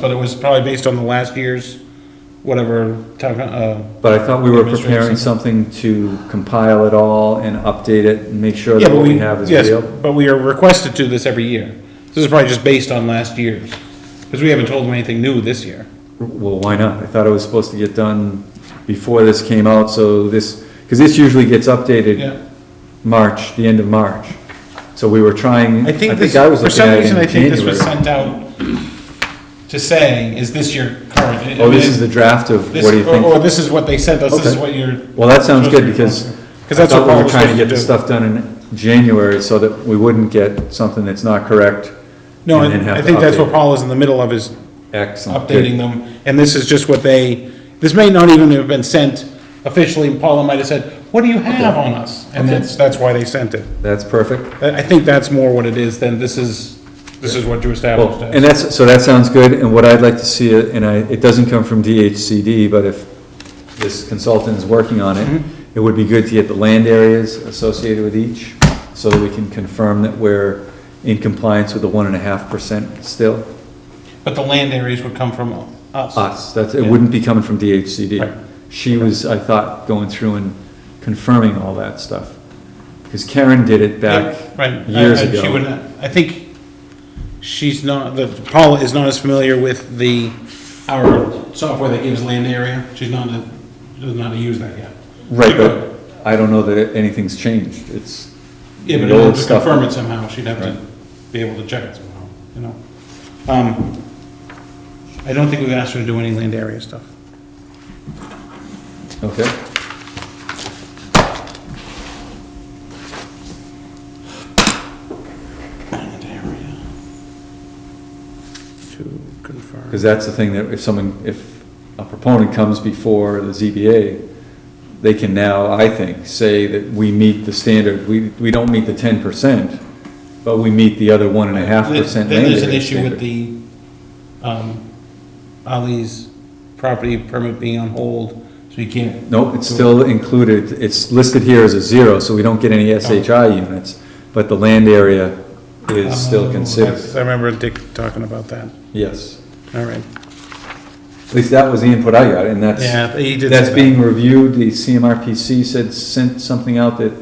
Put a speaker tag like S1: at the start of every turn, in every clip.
S1: But it was probably based on the last year's, whatever, town, uh,
S2: But I thought we were preparing
S1: Administration.
S2: something to compile it all and update it and make sure
S1: yeah,
S2: that
S1: but
S2: what
S1: we,
S2: we have is
S1: yes,
S2: real.
S1: but we are requested to this every year. This is probably just based on last year's, because we haven't told them anything new this year.
S2: Well, why not? I thought it was supposed to get done before this came out, so this, because this usually gets
S1: Yeah.
S2: updated March, the end of March. So we were trying,
S1: I
S2: I
S1: think
S2: think
S1: this,
S2: I was
S1: for
S2: looking
S1: some
S2: at it
S1: reason, I
S2: in
S1: think this was
S2: January.
S1: sent out to say, is this your current? I
S2: Oh, this
S1: mean,
S2: is the draft of,
S1: this-
S2: what do you
S1: or- Or
S2: think?
S1: this is what they sent us, this is
S2: Okay.
S1: what you're.
S2: Well, that sounds
S1: supposed
S2: good,
S1: to
S2: because
S1: respond to. 'Cause
S2: I
S1: that's what
S2: thought we
S1: Paul
S2: were
S1: was
S2: trying to
S1: supposed to
S2: get the
S1: do.
S2: stuff done in January so that we wouldn't get something that's not correct.
S1: No,
S2: and then
S1: I
S2: have
S1: I
S2: to
S1: think that's
S2: update
S1: what
S2: it.
S1: Paul is in the middle of, is
S2: Excellent. good.
S1: updating them, and this is just what they, this may not even have been sent officially, Paula might have said, what do you have on us? And
S2: Okay.
S1: that's, that's why they sent it.
S2: That's perfect.
S1: I, I think that's more what it is than this is, this is what you established
S2: Well, and
S1: as.
S2: that's, so that sounds good, and what I'd like to see, it, and I, it doesn't come from DHCD, but if this consultant is working on it,
S1: Mm-hmm.
S2: it would be good to get the land areas associated with each, so that we can confirm that we're in compliance with the one and a half percent still.
S1: But the land areas would come from us.
S2: Us, that's, it wouldn't be coming from DHCD.
S1: Right.
S2: She was, I thought, going through and confirming all that stuff, because Karen did it back
S1: Yeah, Right. I-
S2: years
S1: I- she
S2: ago.
S1: wouldn't- I think she's not, the, Paula is not as familiar with the, our software that gives land area. She's not, a- does not use that yet.
S2: Right, but I don't know that anything's changed, it's.
S1: Yeah, but
S2: the
S1: in
S2: old
S1: order to
S2: stuff.
S1: confirm it somehow, she'd have to
S2: Right.
S1: be able to check it somehow, you know? Um, I don't think we've asked her to do any land area stuff.
S2: Okay.
S1: Land area. To confirm.
S2: Because that's the thing that if someone, if a proponent comes before the ZBA, they can now, I think, say that we meet the standard, we, we don't meet the ten percent, but we meet the other one and a half
S1: Then
S2: percent
S1: then
S2: land
S1: there's an
S2: area
S1: issue with
S2: standard.
S1: the, um, Ali's property permit being on hold, so you can't
S2: Nope, it's still included, it's listed here as a zero, so we don't get
S1: Oh.
S2: any SHI units, but the land area is
S1: Oh,
S2: still considered,
S1: that's- I remember Dick talking about that,
S2: yes.
S1: all right.
S2: At least that was the input I got, and that's.
S1: Yeah, he did. say
S2: That's
S1: that.
S2: being reviewed, the CMRPC said, sent something out that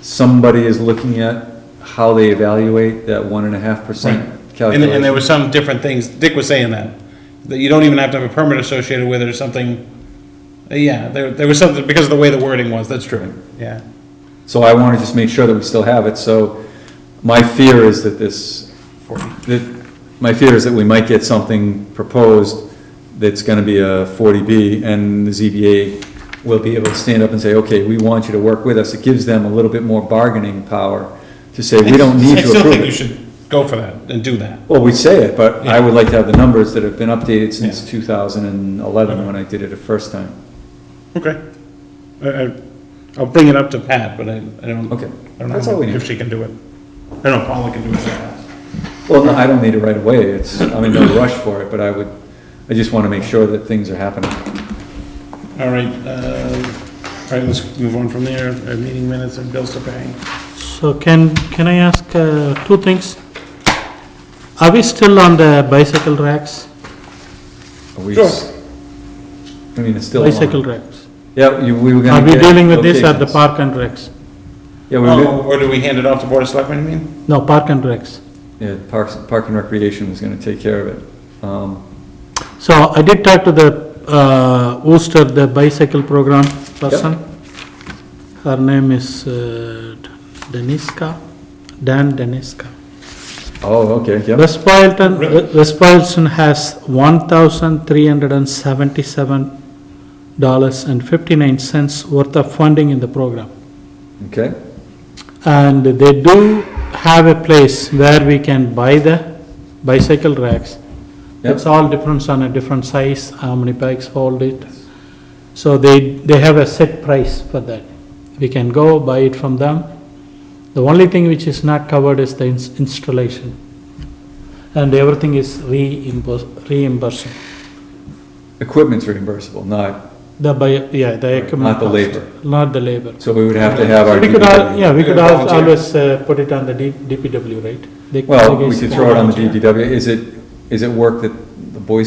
S2: somebody is looking at how they evaluate that one and a half
S1: Right.
S2: percent
S1: And, and there
S2: calculation.
S1: were some different things, Dick was saying that, that you don't even have to have a permit associated with it or something. Uh, Yeah, there, there was something, because of the way the wording was, that's true, yeah.
S2: So I wanna just make sure that we still have it, so my fear is that this, that, my fear is that we might get something proposed that's gonna be a forty B, and the ZBA will be able to stand up and say, okay, we want you to work with us, it gives them a little bit more bargaining power to say, we don't need
S1: I
S2: to approve it.
S1: still think you should go for that and do that.
S2: Well, we say it, but I
S1: Yeah.
S2: would like to have the numbers that have been updated since
S1: Yeah.
S2: two thousand and eleven, when I did it the first time.
S1: Okay. I, I, I'll bring it up to Pat, but I, I don't.
S2: Okay.
S1: I don't
S2: That's all
S1: know
S2: we need.
S1: if she can do it. I don't know, Paula can do it. so fast.
S2: Well, no, I don't need it right away, it's, I'm in no rush for it, but I would, I just wanna make sure that things are happening.
S1: All right, uh, all right, let's move on from there, Uh, meeting minutes and bills to pay.
S3: So can, can I ask uh, two things? Are we still on the bicycle racks?
S2: Are we
S1: Sure.
S2: s- I mean, it's still on.
S3: Bicycle racks?
S2: Yeah, you, we were gonna.
S3: Are we
S2: get
S3: dealing with this at the
S2: locations.
S3: park and recs?
S2: Yeah, we were,
S1: Oh,
S2: go-
S1: or do we hand it off to Board of Selectmen, you mean?
S3: No, park and recs.
S2: yeah, Parks, Park and Recreation was gonna take care of it. Um,
S3: So I did talk to the uh, Worcester, the bicycle program person. Her name is uh, Deniska, Dan Deniska.
S2: oh, okay, yeah,
S3: West Boylston, West Boylston has one thousand three hundred and seventy-seven dollars and fifty-nine cents worth of funding in the program.
S2: okay,
S3: And they do have a place where we can buy the bicycle racks.
S2: Yep.
S3: It's all depends on a different size, how many bikes hold it. So they, they have a set price for that. We can go buy it from them. The only thing which is not covered is the ins- installation. And everything is reimburs- reimbursed,
S2: equipment's reimbursable, not,
S3: the buy, yeah, the equipment.
S2: not the
S3: cost,
S2: labor,
S3: Not the labor.
S2: so we would have to have our.
S3: We could, al-
S2: DPW.
S3: yeah, we could al-
S1: Volunteer.
S3: always uh, put it on the D- DPW, right? They-
S2: Well,
S3: they
S2: we
S3: guys-
S2: could throw it on the DPW, is it, is it work that the Boy